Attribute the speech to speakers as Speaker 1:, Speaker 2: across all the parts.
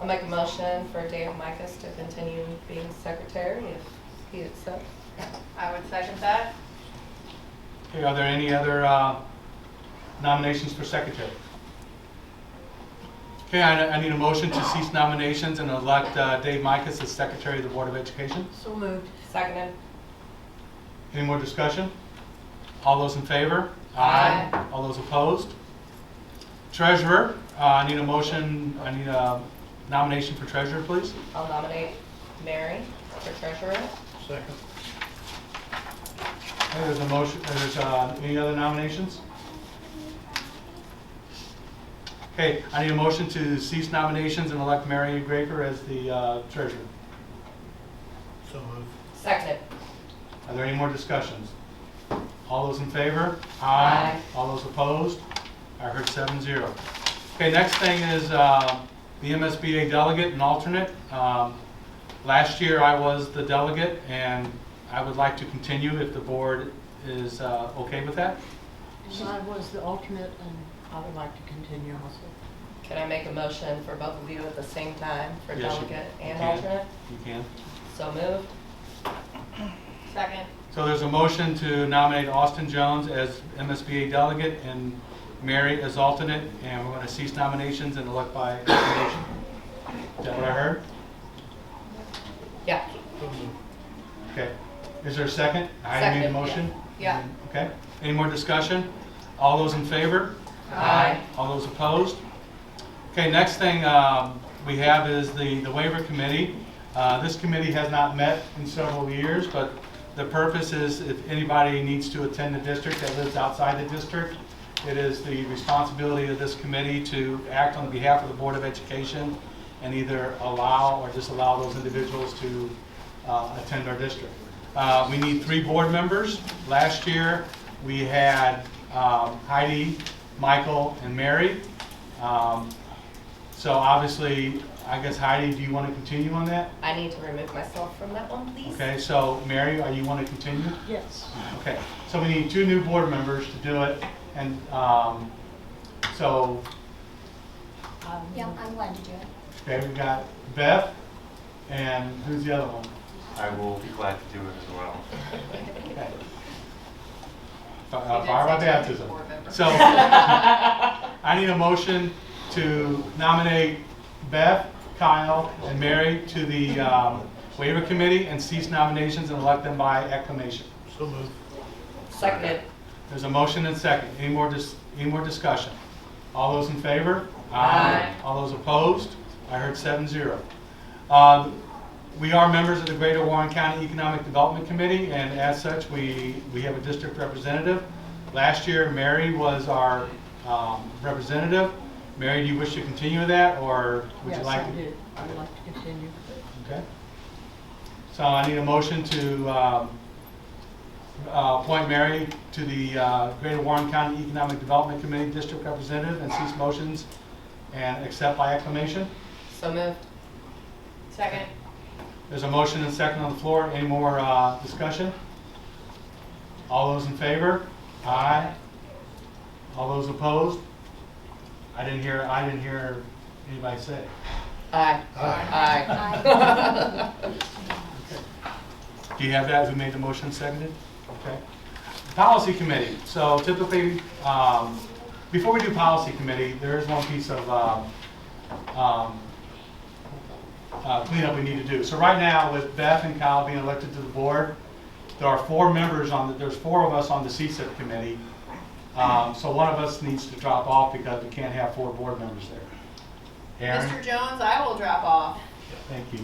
Speaker 1: I'll make a motion for Dave Micus to continue being secretary if he accepts.
Speaker 2: I would second that.
Speaker 3: Okay, are there any other uh, nominations for secretary? Okay, I I need a motion to cease nominations and elect uh, Dave Micus as secretary of the Board of Education.
Speaker 2: So moved.
Speaker 1: Seconded.
Speaker 3: Any more discussion? All those in favor?
Speaker 1: Aye.
Speaker 3: All those opposed? Treasurer, uh, I need a motion, I need a nomination for treasurer, please.
Speaker 1: I'll nominate Mary for treasurer.
Speaker 4: Second.
Speaker 3: Okay, There's a motion, there's uh, any other nominations? Okay, I need a motion to cease nominations and elect Mary Graper as the uh, treasurer.
Speaker 4: So moved.
Speaker 1: Seconded.
Speaker 3: Are there any more discussions? All those in favor?
Speaker 1: Aye.
Speaker 3: All those opposed? I heard seven zero. Okay, next thing is uh, the MSBA delegate and alternate. Um, Last year, I was the delegate, and I would like to continue if the board is uh, okay with that.
Speaker 5: So I was the alternate, and I would like to continue also.
Speaker 1: Can I make a motion for both of you at the same time for
Speaker 3: Yes, you-
Speaker 1: delegate
Speaker 3: you
Speaker 1: and
Speaker 3: can.
Speaker 1: alternate?
Speaker 3: You can.
Speaker 1: So moved.
Speaker 2: Second.
Speaker 3: So there's a motion to nominate Austin Jones as MSBA delegate and Mary as alternate, and we're going to cease nominations and elect by acclamation. Is that what I heard?
Speaker 1: Yeah.
Speaker 4: So moved.
Speaker 3: Okay. Is there a second? I need a
Speaker 1: Second, yeah.
Speaker 3: motion?
Speaker 1: Yeah.
Speaker 3: Okay. Any more discussion? All those in favor?
Speaker 1: Aye.
Speaker 3: All those opposed? Okay, next thing um, we have is the the waiver committee. Uh, This committee has not met in several years, but the purpose is if anybody needs to attend the district that lives outside the district, it is the responsibility of this committee to act on behalf of the Board of Education and either allow or disallow those individuals to uh, attend our district. Uh, We need three board members. Last year, we had um, Heidi, Michael, and Mary. Um, So obviously, I guess Heidi, do you want to continue on that?
Speaker 1: I need to remove myself from that one, please.
Speaker 3: Okay, so Mary, are you want to continue?
Speaker 5: Yes.
Speaker 3: Okay, so we need two new board members to do it, and um, so,
Speaker 5: I would-
Speaker 6: Yeah, I'm glad to do it.
Speaker 3: okay, we've got Beth, and who's the other one?
Speaker 7: I will be glad to do it as well.
Speaker 3: Okay. Fi-
Speaker 2: You
Speaker 3: uh,
Speaker 2: did
Speaker 3: Fire by
Speaker 2: say two new
Speaker 3: baptism.
Speaker 2: board members.
Speaker 3: So, I need a motion to nominate Beth, Kyle, and Mary to the um, waiver committee and cease nominations and elect them by acclamation.
Speaker 4: So moved.
Speaker 1: Seconded.
Speaker 3: There's a motion and second. Any more, dis- any more discussion? All those in favor?
Speaker 1: Aye.
Speaker 3: All those opposed? I heard seven zero. Um, We are members of the Greater Warren County Economic Development Committee, and as such, we, we have a district representative. Last year, Mary was our um, representative. Mary, do you wish to continue with that, or would you
Speaker 5: Yes,
Speaker 3: like?
Speaker 5: I
Speaker 3: to-
Speaker 5: do. I would like to continue.
Speaker 3: Okay. So I need a motion to um, uh, appoint Mary to the uh, Greater Warren County Economic Development Committee District Representative and cease motions and accept by acclamation.
Speaker 1: So moved.
Speaker 2: Second.
Speaker 3: There's a motion and second on the floor. Any more uh, discussion? All those in favor? Aye. All those opposed? I didn't hear, I didn't hear anybody say.
Speaker 1: Aye.
Speaker 4: Aye.
Speaker 1: Aye.
Speaker 3: Do you have that? Who made the motion seconded? Okay. Policy committee. So typically, um, before we do policy committee, there is one piece of, um, um, uh, cleanup we need to do. So right now, with Beth and Kyle being elected to the board, there are four members on, the there's four of us on the CSIP committee. Um, so one of us needs to drop off because we can't have four board members there. Aaron?
Speaker 2: Mr. Jones, I will drop off.
Speaker 3: Thank you.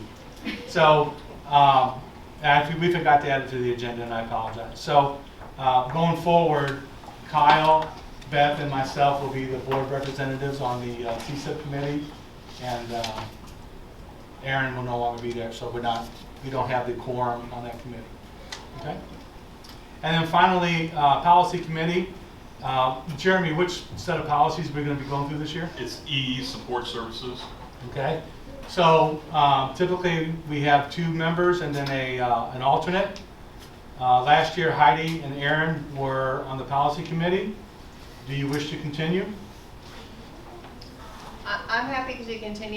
Speaker 3: So, um, actually, we forgot to add it to the agenda, and I apologize. So, uh, going forward, Kyle, Beth, and myself will be the board representatives on the uh, CSIP committee, and uh, Aaron will no longer be there, so we're not, we don't have the quorum on that committee. Okay? And then finally, uh, policy committee. Uh, Jeremy, which set of policies we are going to be going through this year?
Speaker 8: It's EE Support Services.
Speaker 3: Okay, so um, typically, we have two members and then a, uh, an alternate. Uh, Last year Heidi and Aaron were on the policy committee. Do you wish to continue?
Speaker 2: I, I'm happy to continue